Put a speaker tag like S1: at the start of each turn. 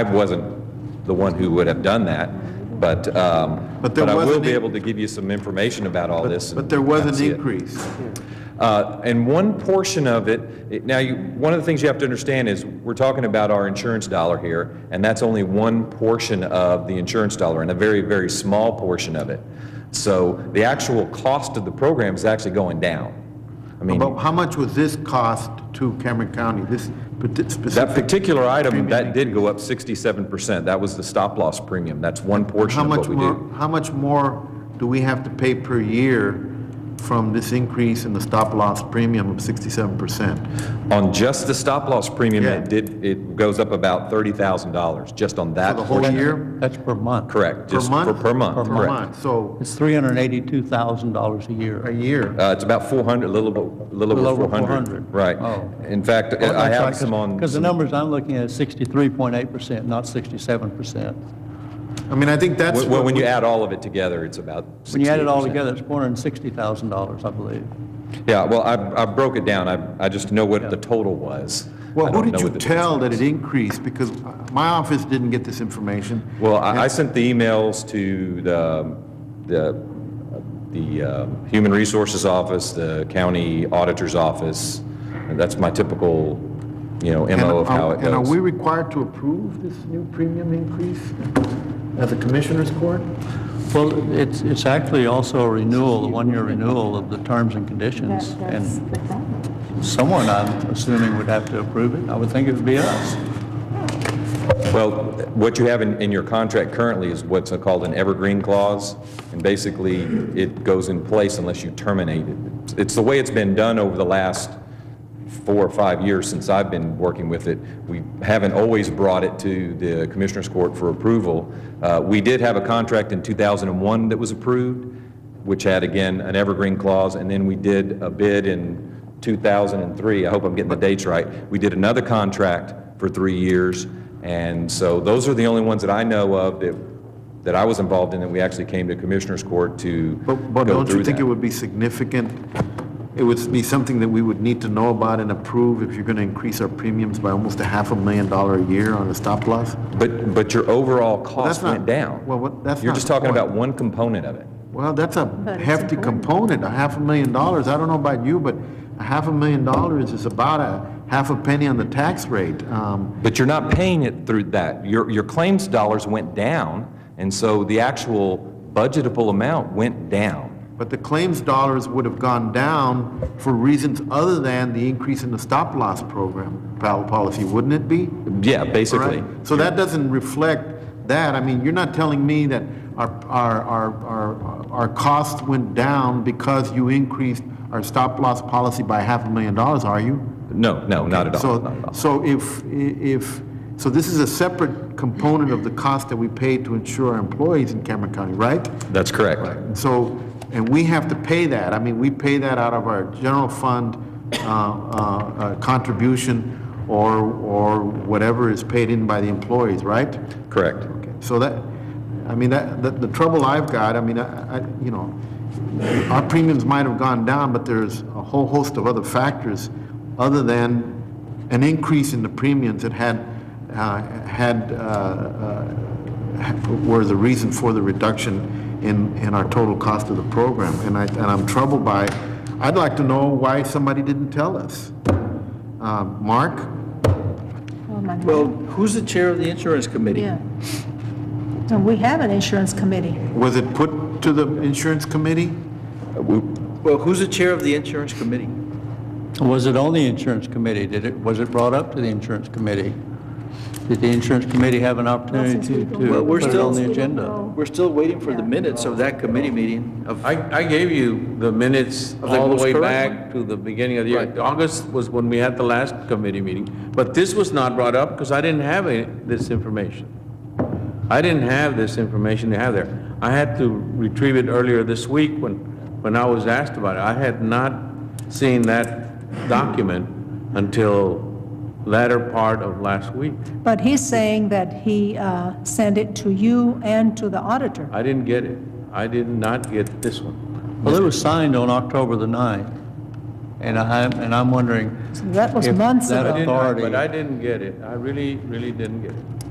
S1: I wasn't the one who would have done that, but, um,
S2: But
S1: but
S2: there
S1: I
S2: was
S1: will
S2: an
S1: be
S2: in-
S1: able to give you some information about all this.
S2: But
S1: and
S2: there was
S1: kinda see
S2: an
S1: it.
S2: increase.
S1: Uh, And one portion of it- it, now, you- one of the things you have to understand is, we're talking about our insurance dollar here, and that's only one portion of the insurance dollar, and a very, very small portion of it. So the actual cost of the program is actually going down. I mean,
S2: But how much was this cost to Cameron County, this parti-
S1: that
S2: specific?
S1: particular item,
S2: Premium
S1: that did go up 67%. That was the stop-loss premium. That's one portion
S2: How
S1: of
S2: much
S1: what we do.
S2: more, how much more do we have to pay per year from this increase in the stop-loss premium of 67%?
S1: On just the stop-loss premium,
S2: Yeah.
S1: it did, it goes up about $30,000, just on that.
S2: For the whole
S1: portion.
S2: year?
S3: That's per month.
S1: Correct.
S2: Per
S1: just for-
S2: month?
S1: Per month,
S2: Per
S1: correct.
S2: month, so
S3: It's $382,000 a
S2: a
S3: year.
S2: year.
S1: Uh, It's about 400, a little, bit- little
S3: Little
S1: over
S3: over
S1: 400.
S3: 400.
S1: Right.
S3: Oh.
S1: In fact, I have some on.
S3: Because the
S1: some-
S3: numbers I'm looking at is 63.8%, not 67%.
S2: I mean, I think that's.
S1: When when
S2: what
S1: you
S2: we-
S1: add all of it together, it's about 68%.
S3: When you add it all together, it's $460,000, I believe.
S1: Yeah, well, I I broke it down. I I just know what the total was. I
S2: Well,
S1: don't
S2: who
S1: know
S2: did you
S1: what the-
S2: tell that it increased? Because uh, my office didn't get this information.
S1: Well, I I sent the emails to the, um, the, the um, Human Resources Office, the County Auditor's Office, and that's my typical, you know,
S2: And
S1: MO of how
S2: are-
S1: it goes.
S2: And are we required to approve this new premium increase as a commissioner's court?
S3: Well, it's, it's actually also a renewal, a one-year renewal of the terms and
S4: That-
S3: conditions.
S4: That's
S3: And
S4: the problem.
S3: someone, I'm assuming, would have to approve it. I would think it would be us.
S1: Well, what you have in, in your contract currently is what's called an evergreen clause, and basically, it goes in place unless you terminate it. It's the way it's been done over the last four or five years since I've been working with it. We haven't always brought it to the Commissioners Court for approval. Uh, We did have a contract in 2001 that was approved, which had, again, an evergreen clause, and then we did a bid in 2003, I hope I'm getting the dates right, we did another contract for three years, and so those are the only ones that I know of that, that I was involved in, that we actually came to Commissioners Court to go
S2: But, but don't you
S1: through
S2: think it
S1: that.
S2: would be significant? It would be something that we would need to know about and approve if you're going to increase our premiums by almost a half a million dollar a year on a stop loss?
S1: But, but your overall cost
S2: not-
S1: went down.
S2: well, what- that's
S1: You're
S2: not
S1: just
S2: the
S1: talking
S2: point.
S1: about one component of it.
S2: Well, that's a
S4: it's
S2: hefty
S4: important.
S2: component, a half a million dollars. I don't know about you, but a half a million dollars is about a half a penny on the tax rate. Um,
S1: But you're not paying it through that. Your, your claims dollars went down, and so the actual budgetable amount went down.
S2: But the claims dollars would have gone down for reasons other than the increase in the stop loss program pol- policy, wouldn't it be?
S1: Yeah, basically.
S2: Right. So that doesn't reflect that. I mean, you're not telling me that our, our, our, our, our costs went down because you increased our stop-loss policy by half a million dollars, are you?
S1: No, no, not at all, not at
S2: So,
S1: all.
S2: so if, if, so this is a separate component of the cost that we pay to insure our employees in Cameron County, right?
S1: That's correct.
S2: And So, and we have to pay that. I mean, we pay that out of our general fund uh, uh, uh, contribution or, or whatever is paid in by the employees, right?
S1: Correct.
S2: So that, I mean, that, the- the trouble I've got, I mean, I, I- you know, our premiums might have gone down, but there's a whole host of other factors other than an increase in the premiums that had, uh, had, uh, uh, were the reason for the reduction in, in our total cost of the program. And I, and I'm troubled by, I'd like to know why somebody didn't tell us. Uh, Mark?
S4: Oh, my
S5: Well,
S4: God.
S5: who's the chair of the insurance committee?
S4: Yeah. And we have an insurance committee.
S2: Was it put to the insurance committee?
S5: Well, who's the chair of the insurance committee?
S3: Was it on the insurance committee? Did it, was it brought up to the insurance committee? Did the insurance committee have an opportunity
S4: since we
S3: to
S4: don't
S3: to
S4: know.
S5: we're
S3: put it on
S5: still-
S3: the
S4: We don't
S3: agenda?
S4: know.
S5: We're still waiting for the
S4: Yeah.
S5: minutes of that committee meeting of,
S6: I, I gave you the minutes all
S5: most
S6: the way
S5: current
S6: back to the beginning of the year.
S5: Right.
S6: August was when we had the last committee meeting, but this was not brought up because I didn't have any- this information. I didn't have this information to have there. I had to retrieve it earlier this week when, when I was asked about it. I had not seen that document until latter part of last week.
S4: But he's saying that he uh, sent it to you and to the auditor.
S6: I didn't get it. I did not get this one.
S3: Well, it was signed on October the 9th, and I, and I'm wondering,
S4: So that was months
S3: that
S4: ago.
S6: I didn't- I-
S3: Authority.
S6: But I didn't get it. I really, really didn't get it.